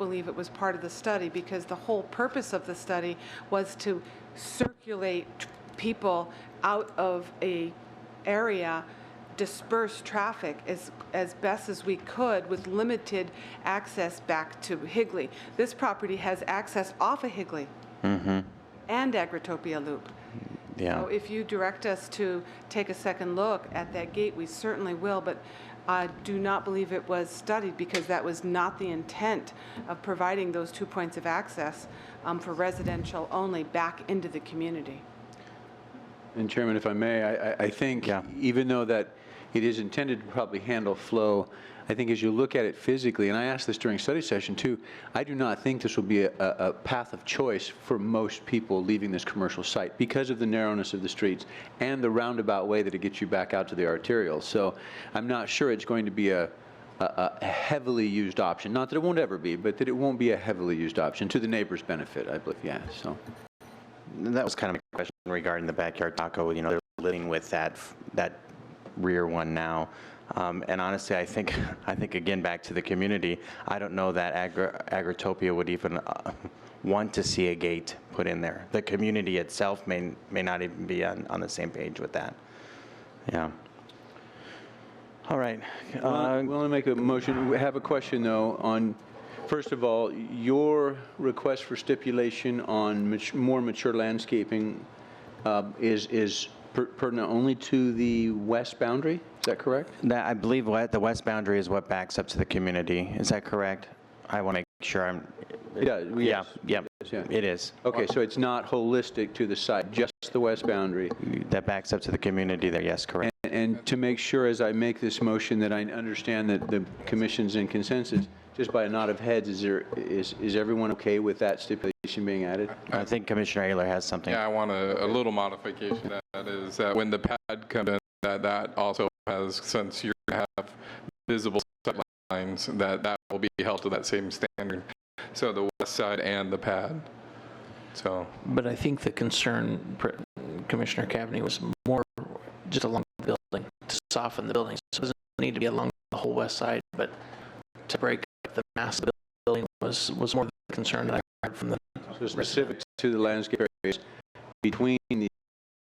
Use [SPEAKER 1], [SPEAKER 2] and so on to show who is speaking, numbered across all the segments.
[SPEAKER 1] believe it was part of the study because the whole purpose of the study was to circulate tr- people out of a area, disperse traffic as, as best as we could with limited access back to Higley. This property has access off of Higley and Agritopia Loop.
[SPEAKER 2] Yeah.
[SPEAKER 1] So if you direct us to take a second look at that gate, we certainly will, but I do not believe it was studied because that was not the intent of providing those two points of access um, for residential only back into the community.
[SPEAKER 3] And Chairman, if I may, I- I I think,
[SPEAKER 2] Yeah.
[SPEAKER 3] even though that it is intended to probably handle flow, I think as you look at it physically, and I asked this during study session too, I do not think this will be a- a a path of choice for most people leaving this commercial site because of the narrowness of the streets and the roundabout way that it gets you back out to the arterial. So I'm not sure it's going to be a a- a heavily used option, not that it won't ever be, but that it won't be a heavily used option, to the neighbor's benefit, I believe, yeah, so.
[SPEAKER 2] And That was kind of my question regarding the backyard taco. You know, they're living with that, f- that rear one now. Um, and honestly, I think, I think again, back to the community, I don't know that Agri- Agritopia would even uh, want to see a gate put in there. The community itself may, may not even be on, on the same page with that. Yeah. All right.
[SPEAKER 3] Well,
[SPEAKER 2] uh,
[SPEAKER 3] we want to make a motion. We have a question, though, on, first of all, your request for stipulation on mat- more mature landscaping uh, is is per- pertinent only to the west boundary? Is that correct?
[SPEAKER 2] That, I believe what, the west boundary is what backs up to the community. Is that correct? I want to make sure I'm,
[SPEAKER 3] Yeah. we-
[SPEAKER 2] yeah, yeah,
[SPEAKER 3] yes, yeah.
[SPEAKER 2] it is.
[SPEAKER 3] Okay, so it's not holistic to the site, just the west boundary?
[SPEAKER 2] That backs up to the community there, yes, correct.
[SPEAKER 3] And to make sure, as I make this motion, that I understand that the commission's in consensus, just by a nod of heads, is there, is is everyone okay with that stipulation being added?
[SPEAKER 2] I think Commissioner Ayler has something.
[SPEAKER 4] Yeah, I want a, a little modification to that is that when the pad comes in, that, that also has, since you have visible sight lines, that, that will be held to that same standard. So the west side and the pad. So,
[SPEAKER 5] But I think the concern, Pr- Commissioner Cavney, was more just along the building, to soften the building. So it doesn't need to be along the whole west side, but to break up the mass of the building was, was more the concern that I heard from the,
[SPEAKER 3] So specific to the landscape areas between the,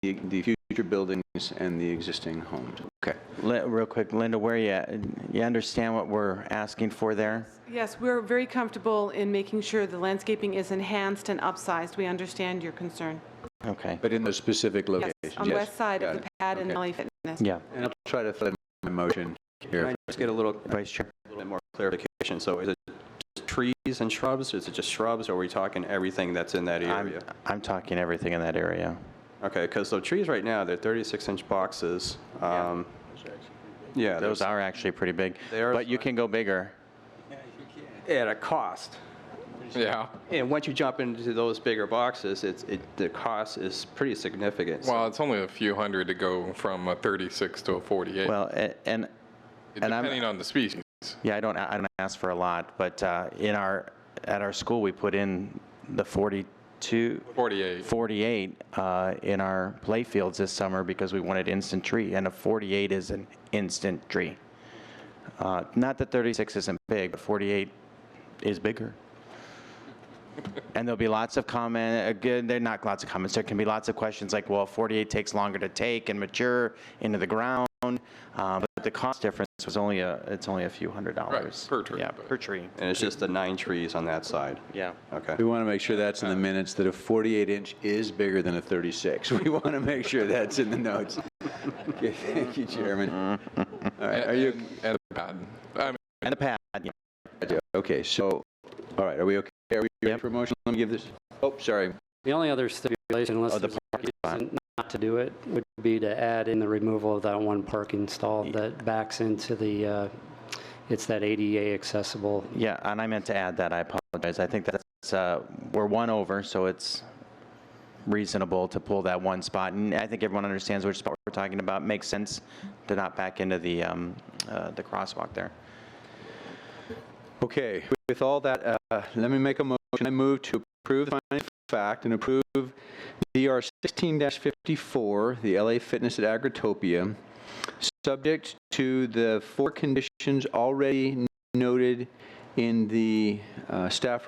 [SPEAKER 3] the future buildings and the existing homes. Okay.
[SPEAKER 2] Li- Real quick, Linda, where you at? You understand what we're asking for there?
[SPEAKER 1] Yes, we're very comfortable in making sure the landscaping is enhanced and upsized. We understand your concern.
[SPEAKER 2] Okay,
[SPEAKER 3] But in those specific
[SPEAKER 1] Yes,
[SPEAKER 3] locations.
[SPEAKER 1] on the west side of
[SPEAKER 3] got
[SPEAKER 1] the
[SPEAKER 3] it.
[SPEAKER 1] pad and
[SPEAKER 3] Okay.
[SPEAKER 1] Alley Fitness.
[SPEAKER 2] yeah.
[SPEAKER 3] And I'll try to fit my motion
[SPEAKER 6] Can
[SPEAKER 3] here.
[SPEAKER 6] I just get a little, a
[SPEAKER 2] Vice Chair,
[SPEAKER 6] little bit more clarification? So is it just trees and shrubs? Is it just shrubs? Or are we talking everything that's in that
[SPEAKER 2] I'm,
[SPEAKER 6] area?
[SPEAKER 2] I'm talking everything in that area.
[SPEAKER 6] Okay, because the trees right now, they're 36-inch boxes. Um, Yeah.
[SPEAKER 2] Those
[SPEAKER 6] there's-
[SPEAKER 2] are actually pretty big,
[SPEAKER 6] They are
[SPEAKER 2] but you
[SPEAKER 6] fine.
[SPEAKER 2] can go bigger.
[SPEAKER 6] At a cost.
[SPEAKER 4] yeah.
[SPEAKER 6] And once you jump into those bigger boxes, it's, it, the cost is pretty significant. So-
[SPEAKER 4] Well, it's only a few hundred to go from a 36 to a 48,
[SPEAKER 2] Well, a- and, and I'm-
[SPEAKER 4] depending on the species.
[SPEAKER 2] yeah, I don't, I don't ask for a lot, but uh, in our, at our school, we put in the 42,
[SPEAKER 4] 48.
[SPEAKER 2] 48 uh, in our playfields this summer because we wanted instant tree, and a 48 is an instant tree. Uh, Not that 36 isn't big, but 48 is bigger. And there'll be lots of comment, again, there not lots of comments, there can be lots of questions like, well, 48 takes longer to take and mature into the ground, uh, but the cost difference was only a, it's only a few hundred dollars.
[SPEAKER 4] per tree,
[SPEAKER 2] Yeah,
[SPEAKER 4] but-
[SPEAKER 2] per tree,
[SPEAKER 6] And it's just the nine trees on that side.
[SPEAKER 2] yeah.
[SPEAKER 6] Okay.
[SPEAKER 3] We want to make sure that's in the minutes, that a 48 inch is bigger than a 36. We want to make sure that's in the notes. Okay, Thank you, Chairman. All right, are you,
[SPEAKER 4] And the pad. I mean,
[SPEAKER 2] And the pad, yeah.
[SPEAKER 3] okay, so, all right, are we okay? Are we ready for motion? Let me give this, oh, sorry.
[SPEAKER 7] The only other stipulation,
[SPEAKER 2] Oh,
[SPEAKER 7] unless
[SPEAKER 2] the
[SPEAKER 7] there's
[SPEAKER 2] parking
[SPEAKER 7] a
[SPEAKER 2] spot.
[SPEAKER 7] reason not to do it, would be to add in the removal of that one parking stall that backs into the, uh, it's that ADA accessible.
[SPEAKER 2] Yeah, and I meant to add that, I apologize. I think that's, uh, we're one over, so it's reasonable to pull that one spot. And I think everyone understands which spot we're talking about. Makes sense to not back into the, um, uh, the crosswalk there.
[SPEAKER 3] Okay, with all that, uh, let me make a motion. I move to approve the finding of fact and approve DR 16-54, the LA Fitness at Agritopia, subject to the four conditions already noted in the uh, staff